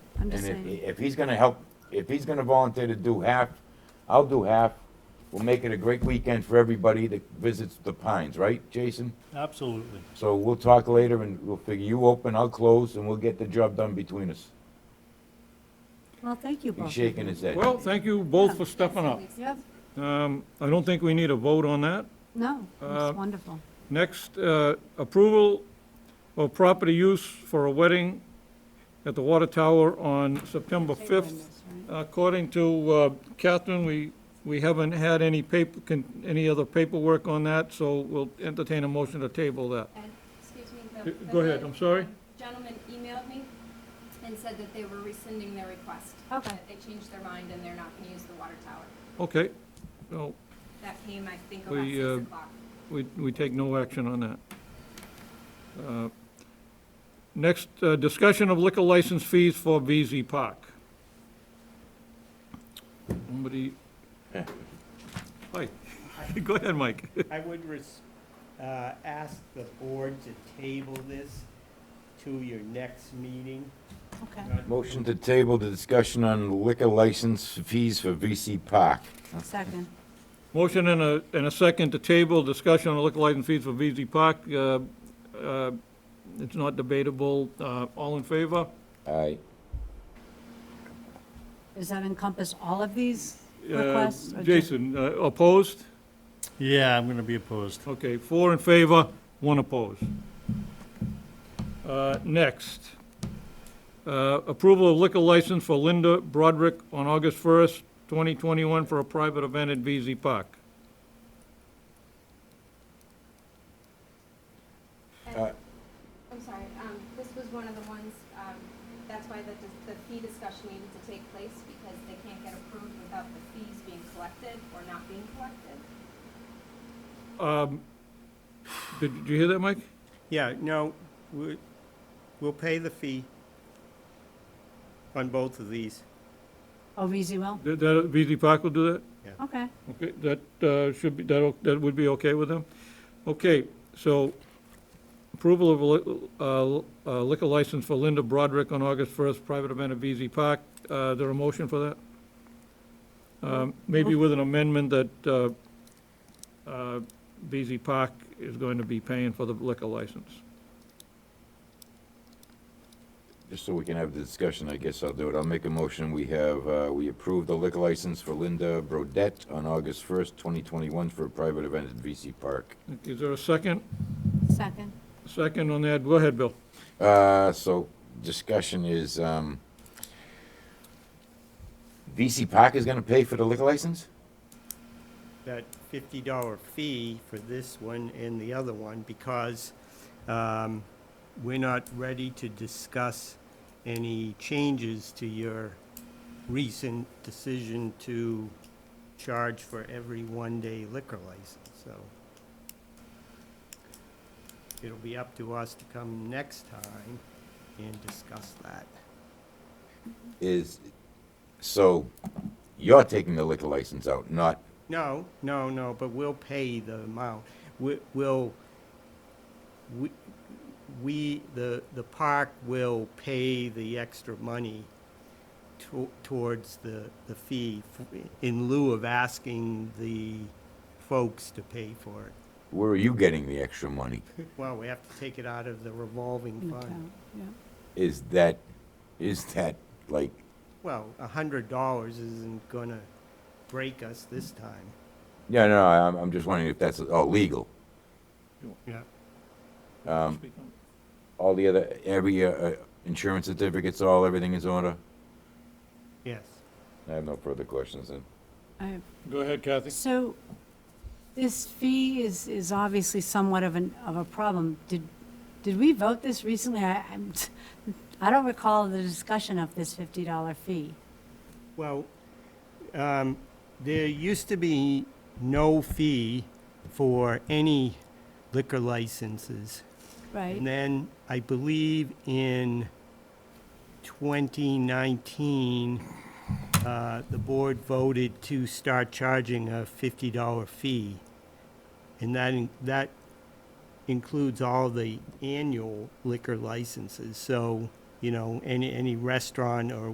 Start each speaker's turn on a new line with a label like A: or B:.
A: I'm
B: And
A: just
B: if,
A: saying,
B: if he's gonna help, if he's gonna volunteer to do half, I'll do half. We'll make it a great weekend for everybody that visits the Pines, right, Jason?
C: Absolutely.
B: So we'll talk later and we'll figure you open, I'll close, and we'll get the job done between us.
A: well, thank you both.
B: He's shaking his head.
D: Well, thank you both for stepping up.
A: Yep,
D: Um, I don't think we need a vote on that.
A: no,
D: Uh,
A: it's wonderful.
D: Next, uh, approval of property use for a wedding at the Water Tower on September 5th. According to uh, Catherine, we, we haven't had any paper, con- any other paperwork on that, so we'll entertain a motion to table that.
E: And, excuse me,
D: Go-
E: the. the
D: go ahead, I'm sorry.
E: Gentleman emailed me and said that they were rescinding their request.
A: Okay.
E: that They changed their mind and they're not gonna use the water tower.
D: Okay, so
E: That came, I think, about
D: We, uh,
E: six o'clock.
D: we, we take no action on that. Uh, Next, uh, discussion of liquor license fees for VZ Park. Somebody? Hi, go ahead, Mike.
F: I would res, uh, ask the board to table this to your next meeting.
A: Okay,
B: Motion to table the discussion on liquor license fees for VC Park.
A: second,
D: Motion and a, and a second to table, discussion on liquor license fees for VZ Park. Uh, uh, It's not debatable. Uh, All in favor?
B: Aye.
A: does that encompass all of these
D: Uh,
A: requests? or just-
D: Jason, uh, opposed?
C: Yeah, I'm going to be opposed.
D: Okay, four in favor, one opposed. Uh, Next, Uh, approval of liquor license for Linda Broderick on August 1st, 2021 for a private event at VZ Park.
B: uh,
E: And- I'm sorry, um, this was one of the ones, um, that's why the, dis- the fee discussion needed to take place because they can't get approved without the fees being collected or not being collected.
D: Um, Did did you hear that, Mike?
F: Yeah, no, we, we'll pay the fee on both of these.
A: Oh, VZ will?
D: That- that- VZ Park will do that?
A: Okay,
D: Okay, that uh, should be, that, that would be okay with them? Okay, so approval of a li- uh, uh, liquor license for Linda Broderick on August 1st, private event at VZ Park. Uh, There a motion for that? Um, Maybe with an amendment that uh, uh, VZ Park is going to be paying for the liquor license.
B: Just so we can have the discussion, I guess I'll do it. I'll make a motion. We have, uh, we approve the liquor license for Linda Brodette on August first, twenty twenty-one for a private event at VC Park.
D: Is there a second?
A: second,
D: Second on that? Go ahead, Bill.
B: Uh, so discussion is, um, VC Park is gonna pay for the liquor license?
F: that fifty dollar fee for this one and the other one because um, we're not ready to discuss any changes to your recent decision to charge for every one-day liquor license, so. It'll be up to us to come next time and discuss that.
B: Is, so you're taking the liquor license out, not,
F: No, no, no, but we'll pay the amount. We- We'll, we- we, the, the park will pay the extra money to- towards the, the fee f- in lieu of asking the folks to pay for it.
B: where are you getting the extra money?
F: Well, we have to take it out of the revolving
A: in
F: fund.
A: account, yeah.
B: Is that, is that like,
F: Well, a hundred dollars isn't gonna break us this time.
B: yeah, no, I'm, I'm just wondering if that's all legal.
F: Yeah.
B: All the other, every, uh, uh, insurance certificates, all, everything is in order?
F: Yes.
B: I have no further questions then.
A: I have
D: Go ahead, Kathy.
A: So this fee is, is obviously somewhat of an, of a problem. Did, did we vote this recently? I, I'm, I don't recall the discussion of this $50 fee.
F: Well, um, there used to be no fee for any liquor licenses. And
A: Right,
F: then I believe in 2019, uh, the board voted to start charging a $50 fee. And that, in- that includes all the annual liquor licenses. So, you know, any, any restaurant or